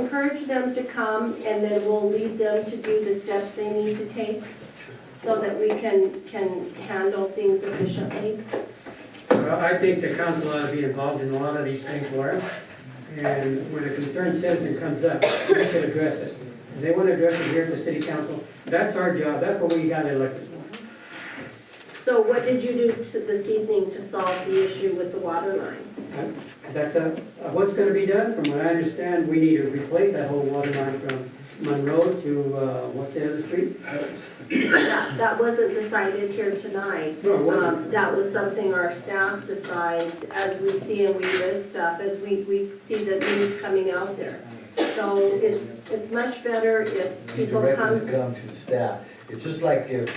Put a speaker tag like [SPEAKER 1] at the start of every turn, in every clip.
[SPEAKER 1] encourage them to come, and then we'll lead them to do the steps they need to take so that we can, can handle things efficiently.
[SPEAKER 2] Well, I think the council ought to be involved in a lot of these things, Laura. And when a concerned citizen comes up, we should address it. If they want to address it here at the city council, that's our job, that's what we got elected for.
[SPEAKER 1] So what did you do to this evening to solve the issue with the water line?
[SPEAKER 2] That's uh, what's going to be done, from what I understand, we need to replace that whole water line from Monroe to, uh, what's the other street?
[SPEAKER 1] That that wasn't decided here tonight.
[SPEAKER 2] No, it wasn't.
[SPEAKER 1] Um, That was something our staff decides as we see and we list stuff, as we, we see the news coming out there. So it's, it's much better if
[SPEAKER 3] You
[SPEAKER 1] people
[SPEAKER 3] direct them
[SPEAKER 1] come,
[SPEAKER 3] to come to the staff. It's just like if,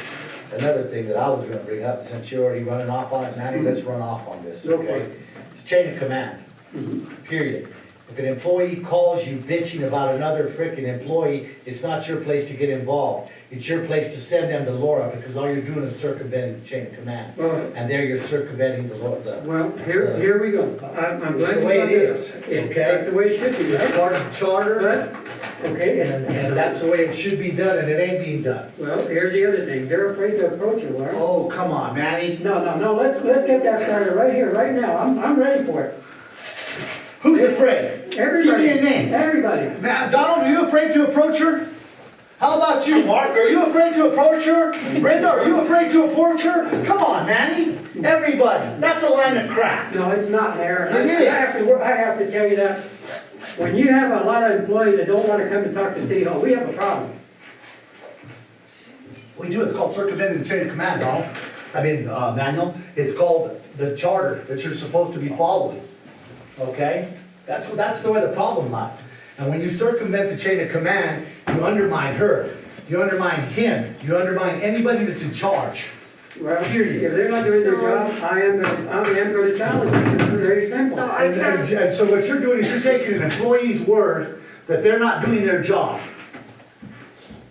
[SPEAKER 3] another thing that I was gonna bring up, since you're already running off on it, Manny, let's run off on this,
[SPEAKER 2] Go for
[SPEAKER 3] okay?
[SPEAKER 2] it.
[SPEAKER 3] It's chain of command, period. If an employee calls you bitching about another frickin' employee, it's not your place to get involved. It's your place to send them to Laura, because all you're doing is circumventing the chain of command.
[SPEAKER 2] Well-
[SPEAKER 3] And there you're circumventing the law, the,
[SPEAKER 2] Well, here, here we go. I- I'm glad
[SPEAKER 3] Uh, It's the
[SPEAKER 2] you
[SPEAKER 3] way
[SPEAKER 2] brought
[SPEAKER 3] it
[SPEAKER 2] that up.
[SPEAKER 3] is,
[SPEAKER 2] It-
[SPEAKER 3] okay?
[SPEAKER 2] That's the way it should be,
[SPEAKER 3] that's
[SPEAKER 2] right?
[SPEAKER 3] part of the charter,
[SPEAKER 2] But, okay,
[SPEAKER 3] and, and that's the way it should be done, and it ain't being done.
[SPEAKER 2] Well, here's the other thing, they're afraid to approach it, Laura.
[SPEAKER 3] Oh, come on, Manny.
[SPEAKER 2] No, no, no, let's, let's get that started right here, right now, I'm, I'm ready for it.
[SPEAKER 3] Who's afraid?
[SPEAKER 2] Everybody,
[SPEAKER 3] Give me a name.
[SPEAKER 2] everybody,
[SPEAKER 3] Now, Donald, are you afraid to approach her? How about you, Mark? Are you afraid to approach her? Brenda, are you afraid to approach her? Come on, Manny. Everybody, that's a line of crap.
[SPEAKER 2] no, it's not there. I-
[SPEAKER 3] It is.
[SPEAKER 2] I have to, I have to tell you that, when you have a lot of employees that don't wanna come and talk to City Hall, we have a problem.
[SPEAKER 3] We do, it's called circumventing the chain of command, Donald. I mean, uh, manual. It's called the charter that you're supposed to be following. Okay? That's, that's the way the problem lies. And when you circumvent the chain of command, you undermine her, you undermine him, you undermine anybody that's in charge.
[SPEAKER 2] Well, if they're not doing their job, I am, gonna- I am gonna challenge them, it's very simple.
[SPEAKER 1] so our
[SPEAKER 3] And, and-
[SPEAKER 1] council,
[SPEAKER 3] and so what you're doing is you're taking an employee's word that they're not doing their job.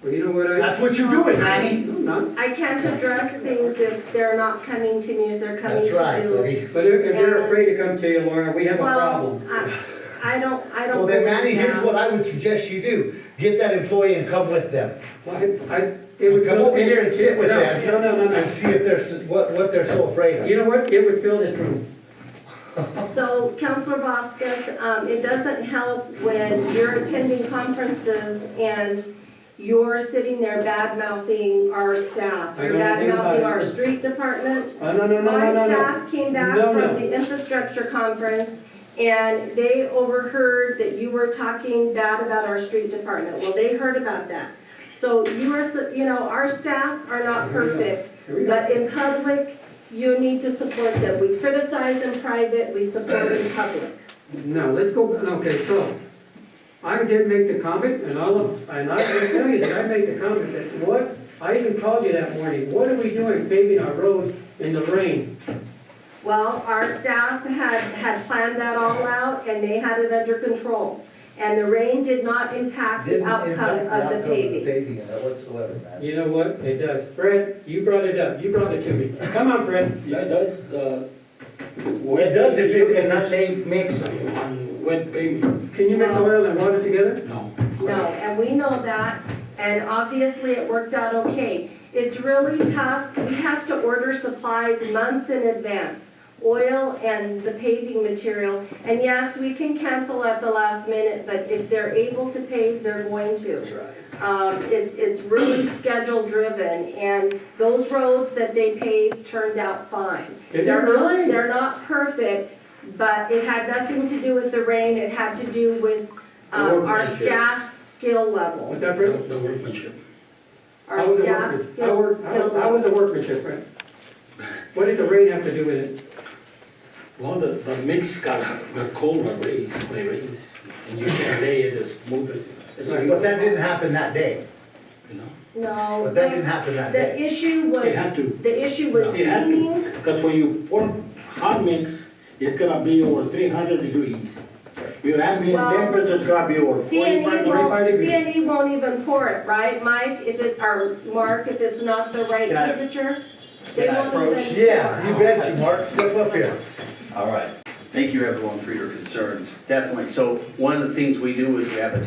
[SPEAKER 2] Well, you know what I?
[SPEAKER 3] That's what you're doing, Manny.
[SPEAKER 2] No, no,
[SPEAKER 1] I can't address things if they're not coming to me, if they're coming to
[SPEAKER 3] That's
[SPEAKER 1] you.
[SPEAKER 3] right, buddy.
[SPEAKER 2] but if, if they're afraid to come to you, Laura, we have a
[SPEAKER 1] Well,
[SPEAKER 2] problem.
[SPEAKER 1] I, I don't, I don't.
[SPEAKER 3] Well, then
[SPEAKER 1] believe
[SPEAKER 3] Manny, here's
[SPEAKER 1] that.
[SPEAKER 3] what I would suggest you do. Get that employee and come with them.
[SPEAKER 2] Well, I, I, it would.
[SPEAKER 3] Come
[SPEAKER 2] fill-
[SPEAKER 3] over here and sit with
[SPEAKER 2] No,
[SPEAKER 3] them.
[SPEAKER 2] No, no, no, no.
[SPEAKER 3] And see if they're, s- what, what they're so afraid of.
[SPEAKER 2] You know what, it would fill this room.
[SPEAKER 1] So Counselor Vasquez, um, it doesn't help when you're attending conferences and you're sitting there bad mouthing our staff.
[SPEAKER 2] I
[SPEAKER 1] You're
[SPEAKER 2] don't
[SPEAKER 1] bad
[SPEAKER 2] think about
[SPEAKER 1] mouthing
[SPEAKER 2] it.
[SPEAKER 1] our street department.
[SPEAKER 2] Oh, no, no, no,
[SPEAKER 1] My
[SPEAKER 2] no, no, no.
[SPEAKER 1] staff came back
[SPEAKER 2] No,
[SPEAKER 1] from
[SPEAKER 2] no.
[SPEAKER 1] the infrastructure conference and they overheard that you were talking bad about our street department. Well, they heard about that. So you are, su- you know, our staff are not
[SPEAKER 2] Here we go.
[SPEAKER 1] perfect.
[SPEAKER 2] Here we go.
[SPEAKER 1] But in public, you need to support them. We criticize in private, we support in public.
[SPEAKER 2] No, let's go, okay, so, I did make the comment, and I'll, and I can tell you that I made the comment that what, I even called you that morning, what are we doing paving our roads in the rain?
[SPEAKER 1] Well, our staff had, had planned that all out and they had it under control. And the rain did not impact the
[SPEAKER 3] Didn't
[SPEAKER 1] outcome
[SPEAKER 3] impact
[SPEAKER 1] of the
[SPEAKER 3] outcome
[SPEAKER 1] paving.
[SPEAKER 3] paving in that whatsoever, man.
[SPEAKER 2] You know what, it does, Fred, you brought it up, you brought it to me, come on, Fred.
[SPEAKER 4] Yeah, it does, uh.
[SPEAKER 5] It does if you cannot say mix.
[SPEAKER 4] Wet pavement,
[SPEAKER 2] Can you mix oil and water together?
[SPEAKER 4] no.
[SPEAKER 1] No, and we know that, and obviously it worked out okay. It's really tough, we have to order supplies months in advance, oil and the paving material. And yes, we can cancel at the last minute, but if they're able to pave, they're going to.
[SPEAKER 4] right.
[SPEAKER 1] Um, it's, it's really schedule driven, and those roads that they paved turned out fine.
[SPEAKER 2] Did
[SPEAKER 1] They're
[SPEAKER 2] they really?
[SPEAKER 1] not, they're not perfect, but it had nothing to do with the rain, it had to do with, um, our
[SPEAKER 4] Workmanship.
[SPEAKER 1] staff's skill level.
[SPEAKER 2] What's that,
[SPEAKER 4] The
[SPEAKER 2] Fred?
[SPEAKER 4] the workmanship,
[SPEAKER 2] I
[SPEAKER 1] Our
[SPEAKER 2] was a
[SPEAKER 1] staff's
[SPEAKER 2] workman. I
[SPEAKER 1] skill,
[SPEAKER 2] worked- I
[SPEAKER 1] skill
[SPEAKER 2] was- I was
[SPEAKER 1] level.
[SPEAKER 2] a workmanship, Fred. What did the rain have to do with it?
[SPEAKER 4] well, the, the mix got, got cold when it rains, when it rains, and you can't lay it, just move it. It's like-
[SPEAKER 3] But that didn't happen that day.
[SPEAKER 4] You know,
[SPEAKER 1] No.
[SPEAKER 3] But that
[SPEAKER 1] they-
[SPEAKER 3] didn't happen that
[SPEAKER 1] The
[SPEAKER 3] day.
[SPEAKER 1] issue was,
[SPEAKER 4] They had to.
[SPEAKER 1] the issue was
[SPEAKER 4] They had to.
[SPEAKER 1] seeming,
[SPEAKER 4] because when you pour hot mix, it's gonna be over three hundred degrees. Your ambient
[SPEAKER 1] Well,
[SPEAKER 4] temperature's gonna be over forty-five
[SPEAKER 1] CNE
[SPEAKER 4] degrees.
[SPEAKER 2] Forty-five
[SPEAKER 1] E won't,
[SPEAKER 2] degrees.
[SPEAKER 1] CNE won't even pour it, right, Mike? If it, or Mark, if it's not the right
[SPEAKER 6] Can I-
[SPEAKER 1] temperature? they
[SPEAKER 6] can I
[SPEAKER 1] won't
[SPEAKER 6] approach?
[SPEAKER 1] even-
[SPEAKER 3] Yeah, you bet you, Mark. Step up here.
[SPEAKER 6] All right. Thank you, everyone, for your concerns. Definitely. So one of the things we do is we have a